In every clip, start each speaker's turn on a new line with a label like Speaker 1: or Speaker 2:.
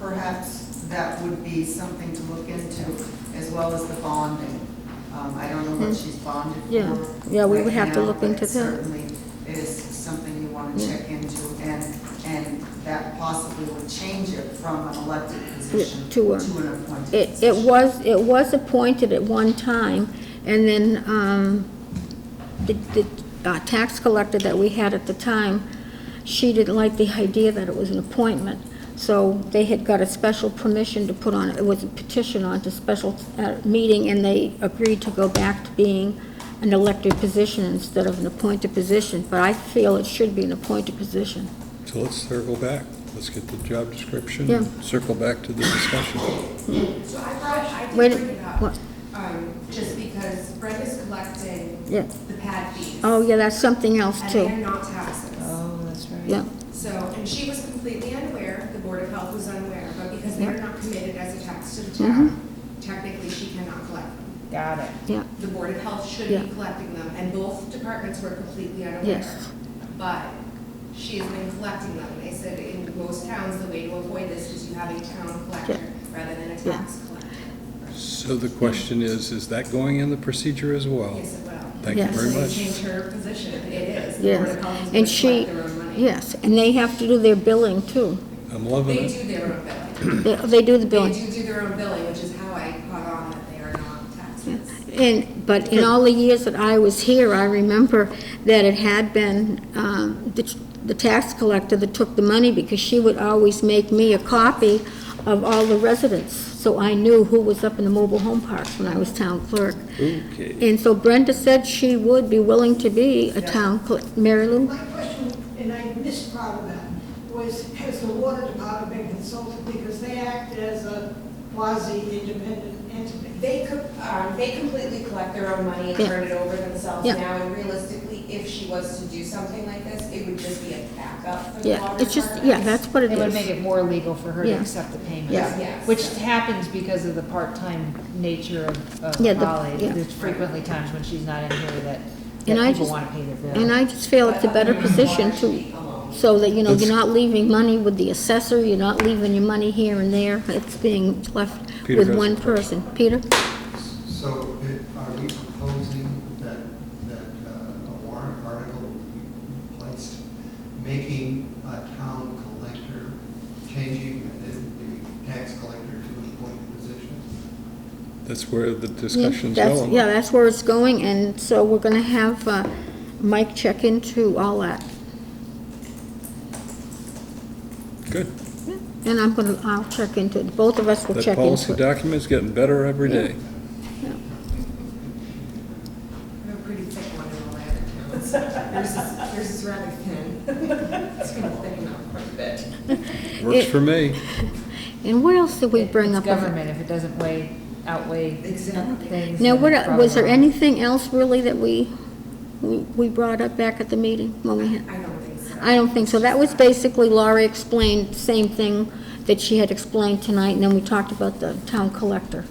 Speaker 1: Perhaps that would be something to look into, as well as the bonding. Um, I don't know what she's bonded for.
Speaker 2: Hmm. Yeah. Yeah, we would
Speaker 1: right
Speaker 2: have to
Speaker 1: now,
Speaker 2: look
Speaker 1: but
Speaker 2: into that.
Speaker 1: Certainly, it is something you want to check into, and, and that possibly would change it from an elected position to
Speaker 2: to, uh,
Speaker 1: an appointed
Speaker 2: It, it
Speaker 1: position.
Speaker 2: was, it was appointed at one time, and then, um, the, the uh, tax collector that we had at the time, she didn't like the idea that it was an appointment, so they had got a special permission to put on, it was a petition on to special, uh, meeting, and they agreed to go back to being an elected position instead of an appointed position, but I feel it should be an appointed position.
Speaker 3: So let's circle back. Let's get the job description,
Speaker 2: Yeah.
Speaker 3: circle back to the discussion.
Speaker 4: So I brought, I did
Speaker 2: Wait,
Speaker 4: bring it up,
Speaker 2: what?
Speaker 4: um, just because Brenda's collecting
Speaker 2: Yeah.
Speaker 4: the pad fees.
Speaker 2: Oh, yeah, that's something else
Speaker 4: And they are
Speaker 2: too,
Speaker 4: not taxes.
Speaker 5: Oh, that's right.
Speaker 2: yeah.
Speaker 4: So, and she was completely unaware, the Board of Health was unaware, but because they're not committed as a tax to the town,
Speaker 2: Mm-hmm.
Speaker 4: technically she cannot collect them.
Speaker 5: Got it.
Speaker 2: Yeah,
Speaker 4: The Board of Health should
Speaker 2: Yeah.
Speaker 4: be collecting them, and both departments were completely unaware.
Speaker 2: Yes.
Speaker 4: But she has been collecting them, they said in most towns, the way to avoid this is you have a town collector rather than a
Speaker 2: Yeah.
Speaker 4: tax collector.
Speaker 3: So the question is, is that going in the procedure as well?
Speaker 4: Yes, it will.
Speaker 3: Thank you
Speaker 2: Yes.
Speaker 3: very
Speaker 4: They
Speaker 3: much.
Speaker 4: Change her position, it is. The Board of Health is
Speaker 2: Yes, and
Speaker 4: gonna
Speaker 2: she,
Speaker 4: collect their own money.
Speaker 2: yes, and they have to do their billing too.
Speaker 3: I'm
Speaker 4: They
Speaker 3: loving it.
Speaker 4: do their own billing.
Speaker 2: They they do the
Speaker 4: They
Speaker 2: billing.
Speaker 4: do do their own billing, which is how I caught on that they are not taxes.
Speaker 2: And, but in all the years that I was here, I remember that it had been um, the the tax collector that took the money because she would always make me a copy of all the residents. So I knew who was up in the mobile home parks when I was town clerk.
Speaker 3: Okay.
Speaker 2: And so Brenda said she would be willing to be a town clerk. Mary Lou?
Speaker 6: My question, and I missed part of that, was has the water department been consulted because they act as a quasi-independent entity?
Speaker 4: They could, um, they completely collect their own money and
Speaker 2: Yeah.
Speaker 4: turn it over themselves
Speaker 2: Yeah.
Speaker 4: now, and realistically, if she was to do something like this, it would just be a backup for the
Speaker 2: Yeah,
Speaker 4: water
Speaker 2: it's just,
Speaker 4: department.
Speaker 2: yeah, that's what it
Speaker 5: It would
Speaker 2: is.
Speaker 5: make it more legal for her to
Speaker 2: Yeah.
Speaker 5: accept the payments.
Speaker 2: Yeah.
Speaker 4: Yes.
Speaker 5: Which happens because of the part-time nature of of
Speaker 2: Yeah, the-
Speaker 5: Holly.
Speaker 2: yeah.
Speaker 5: There's frequently times when she's not in here that,
Speaker 2: And I
Speaker 5: that people
Speaker 2: just-
Speaker 5: want to pay their bill.
Speaker 2: And I just feel it's a better position to, so that, you know, you're not leaving money with the assessor, you're not leaving your money here and there, it's being left
Speaker 3: Peter
Speaker 2: with
Speaker 3: has
Speaker 2: one
Speaker 3: a question.
Speaker 2: person. Peter?
Speaker 7: So it- are we proposing that, that uh, a warrant article be placed, making a town collector, changing the- the tax collector to an appointed position?
Speaker 3: That's where the discussion's
Speaker 2: That's-
Speaker 3: going.
Speaker 2: Yeah, that's where it's going, and so we're gonna have uh, Mike check into all that.
Speaker 3: Good.
Speaker 2: And I'm gonna, I'll check into it, both of us will
Speaker 3: That
Speaker 2: check into
Speaker 3: policy
Speaker 2: it.
Speaker 3: document's getting better every
Speaker 2: Yeah.
Speaker 3: day.
Speaker 4: I have a pretty thick one in all my other towns. Yours is, yours is rather thin. It's gonna thicken up quite a bit.
Speaker 3: Works
Speaker 2: It-
Speaker 3: for me.
Speaker 2: And what else did we
Speaker 5: It-
Speaker 2: bring
Speaker 5: it's
Speaker 2: up?
Speaker 5: government, if it doesn't weigh, outweigh
Speaker 4: Exactly.
Speaker 5: things.
Speaker 2: Now,
Speaker 5: then
Speaker 2: what,
Speaker 5: it's
Speaker 2: el- was there
Speaker 5: problematic.
Speaker 2: anything else really that we, we we brought up back at the meeting when we had?
Speaker 4: I don't think so.
Speaker 2: I don't think so. That was basically Laura explained the same thing that she had explained tonight, and then we talked about the town collector.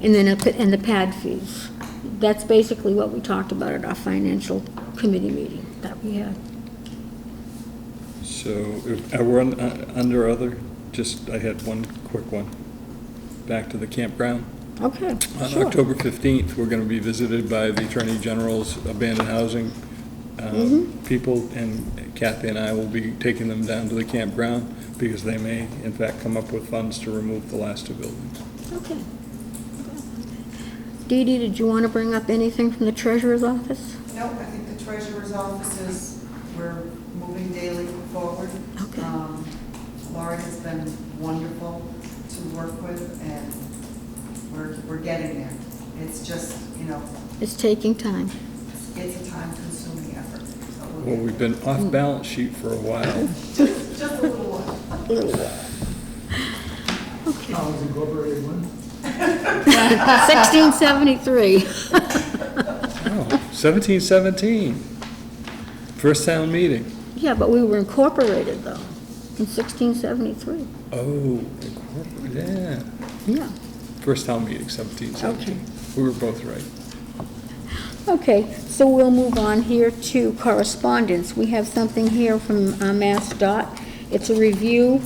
Speaker 2: And then, a- and the pad fees. That's basically what we talked about at our financial committee meeting that we had.
Speaker 3: So if- are we on- uh, under other? Just, I had one quick one. Back to the campground.
Speaker 2: Okay,
Speaker 3: On
Speaker 2: sure.
Speaker 3: October 15th, we're going to be visited by the Attorney General's abandoned housing uh, people, and Kathy and I will be taking them down to the campground because they may, in fact, come up with funds to remove the last two buildings.
Speaker 2: Okay. Dee Dee, did you want to bring up anything from the treasurer's office?
Speaker 1: No, I think the treasurer's office is, we're moving daily forward.
Speaker 2: Okay.
Speaker 1: Um, Laura has been wonderful to work with, and we're, we're getting there. It's just, you know,
Speaker 2: It's taking time.
Speaker 1: it's a time-consuming effort. but we'll
Speaker 3: Well,
Speaker 1: get
Speaker 3: we've been off balance sheet for a while.
Speaker 1: there. Just a little while.
Speaker 2: Okay.
Speaker 7: was incorporated one?
Speaker 2: 1673.
Speaker 3: Wow, 1717, first town meeting.
Speaker 2: Yeah, but we were incorporated, though, in 1673.
Speaker 3: Oh, incorpor- yeah,
Speaker 2: Yeah.
Speaker 3: first town meeting, 1717. We were both right.
Speaker 2: Okay, so we'll move on here to correspondence. We have something here from uh, Mass Dot. It's a review